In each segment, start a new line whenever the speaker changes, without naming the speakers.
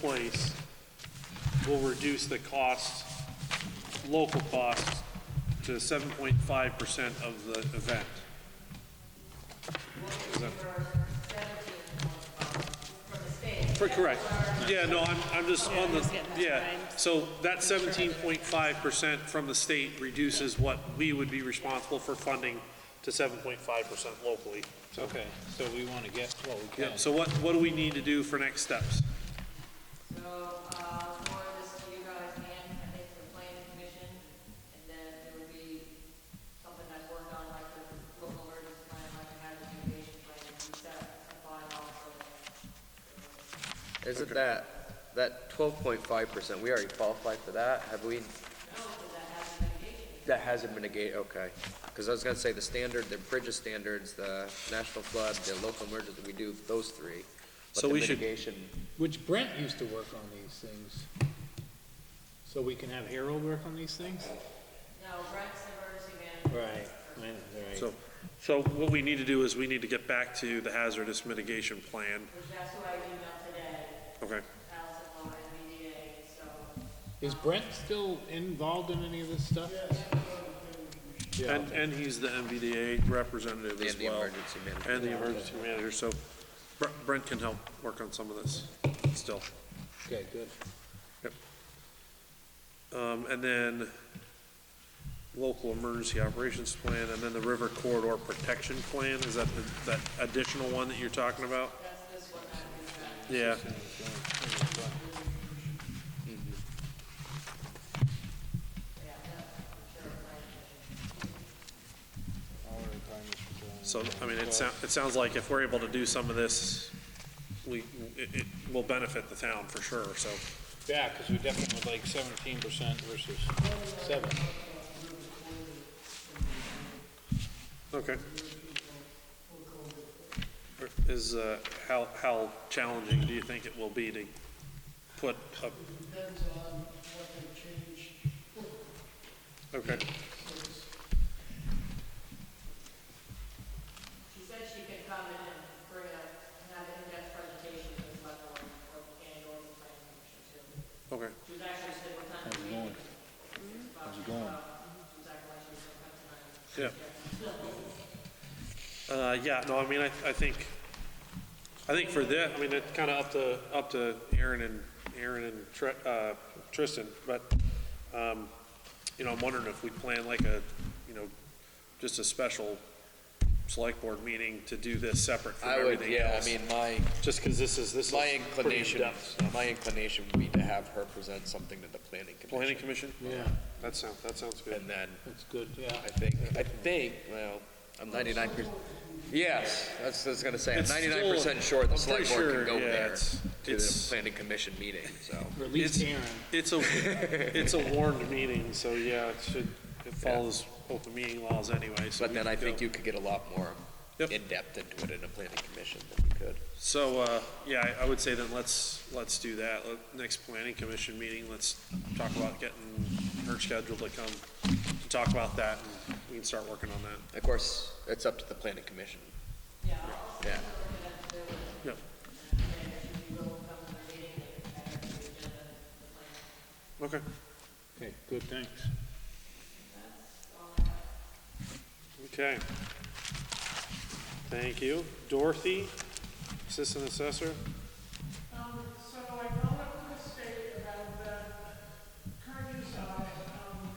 place will reduce the cost, local costs, to seven point five percent of the event. Is that- For, correct. Yeah, no, I'm, I'm just on the, yeah. So that seventeen point five percent from the state reduces what we would be responsible for funding to seven point five percent locally. So,
Okay, so we want to get what we
yeah,
can.
so what, what do we need to do for next steps?
So, uh, more of this to you guys and I think the planning commission, and then it would be something I've worked on, like the local emergency plan, like the hazard mitigation plan, and set a bylaw for
Isn't that, that twelve point five percent, we already qualified for that, have we?
Oh,
That hasn't been a gate, okay, because I was gonna say the standard, the Bridges standards, the national flood, the local emergency, we do those three. But
So
the
we should-
mitigation,
Which Brent used to work on these things. So we can have Harold work on these things?
No, Brent's the emergency
Right,
management.
I know, right.
So, so what we need to do is we need to get back to the hazardous mitigation plan.
which that's who I emailed today,
Okay.
Allison Law, MBDA, so.
Is Brent still involved in any of this stuff? Yeah,
And, and he's the MVDA representative as
And the
well.
emergency manager.
And the emergency manager, so Br- Brent can help work on some of this still.
okay, good.
Um, and then local emergency operations plan, and then the river corridor protection plan, is that, the- that additional one that you're talking about? Yeah, so, I mean, it sounds, it sounds like if we're able to do some of this, we, it, it will benefit the town for sure, so.
Yeah, because we definitely would like seventeen percent versus seven.
Okay. Is, uh, how, how challenging do you think it will be to put up,
depends on what they change.
okay,
She said she could come in and bring a, have an in-depth presentation to the select board, or and or the planning commission too.
okay,
She was actually sitting with time. How's it going? How's it going? She was acting like she was gonna come tonight.
yeah. Uh, yeah, no, I mean, I, I think, I think for that, I mean, it's kind of up to, up to Aaron and, Aaron and Tr- uh, Tristan, but, um, you know, I'm wondering if we plan like a, you know, just a special select board meeting to do this separate from
I would,
everything
yeah, I
else.
mean, my,
Just because this is, this is.
my
pretty
inclination,
in-depth stuff.
my inclination would be to have her present something to the planning
Planning
commission.
commission?
Yeah,
That sounds, that sounds good.
And then,
that's good, yeah.
I think, I think, well, I'm ninety-nine percent, yes, that's, what I was gonna say, I'm
It's still-
ninety-nine percent sure
I'm
the
pretty
select board
sure,
can go
yeah,
there
it's-
to the
it's-
planning commission meeting, so.
Or at least
It's-
Aaron.
It's a, it's a warned meeting, so yeah, it should, it follows open meeting laws anyway, so.
But then I think you could get a lot more
Yep.
in-depth into it in a planning commission than you could.
So, uh, yeah, I- I would say then let's, let's do that. Let- Next planning commission meeting, let's talk about getting her scheduled to come to talk about that and we can start working on that.
Of course, it's up to the planning commission. Yeah.
Yep. Okay.
Okay, good, thanks.
Okay. Thank you. Dorothy, Assistant Assessor?
Um, so I brought up to the state about the current use of, um,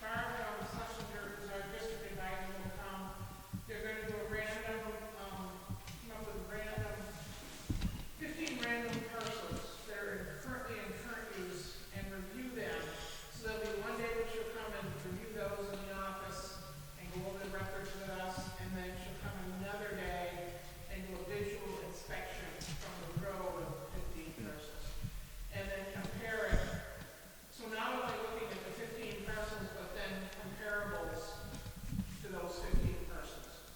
firemen on Schlesinger, who's our district advisor will come. They're gonna do a random, um, come up with random, fifteen random parcels that are currently in current use and review them. So there'll be one day that she'll come and review those in the office and go over the records with us, and then she'll come another day and do a visual inspection from the row of fifteen parcels. And then compare it, so not only looking at the fifteen parcels, but then comparables to those fifteen parcels.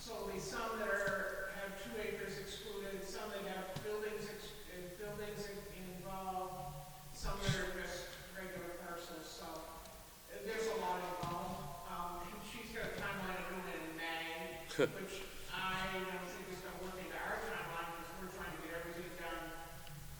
So there'll be some that are, have two acres excluded, some that have buildings, ex- uh, buildings involved, some that are just regular parcels, so uh, there's a lot involved. Um, and she's got a timeline of doing it in May, which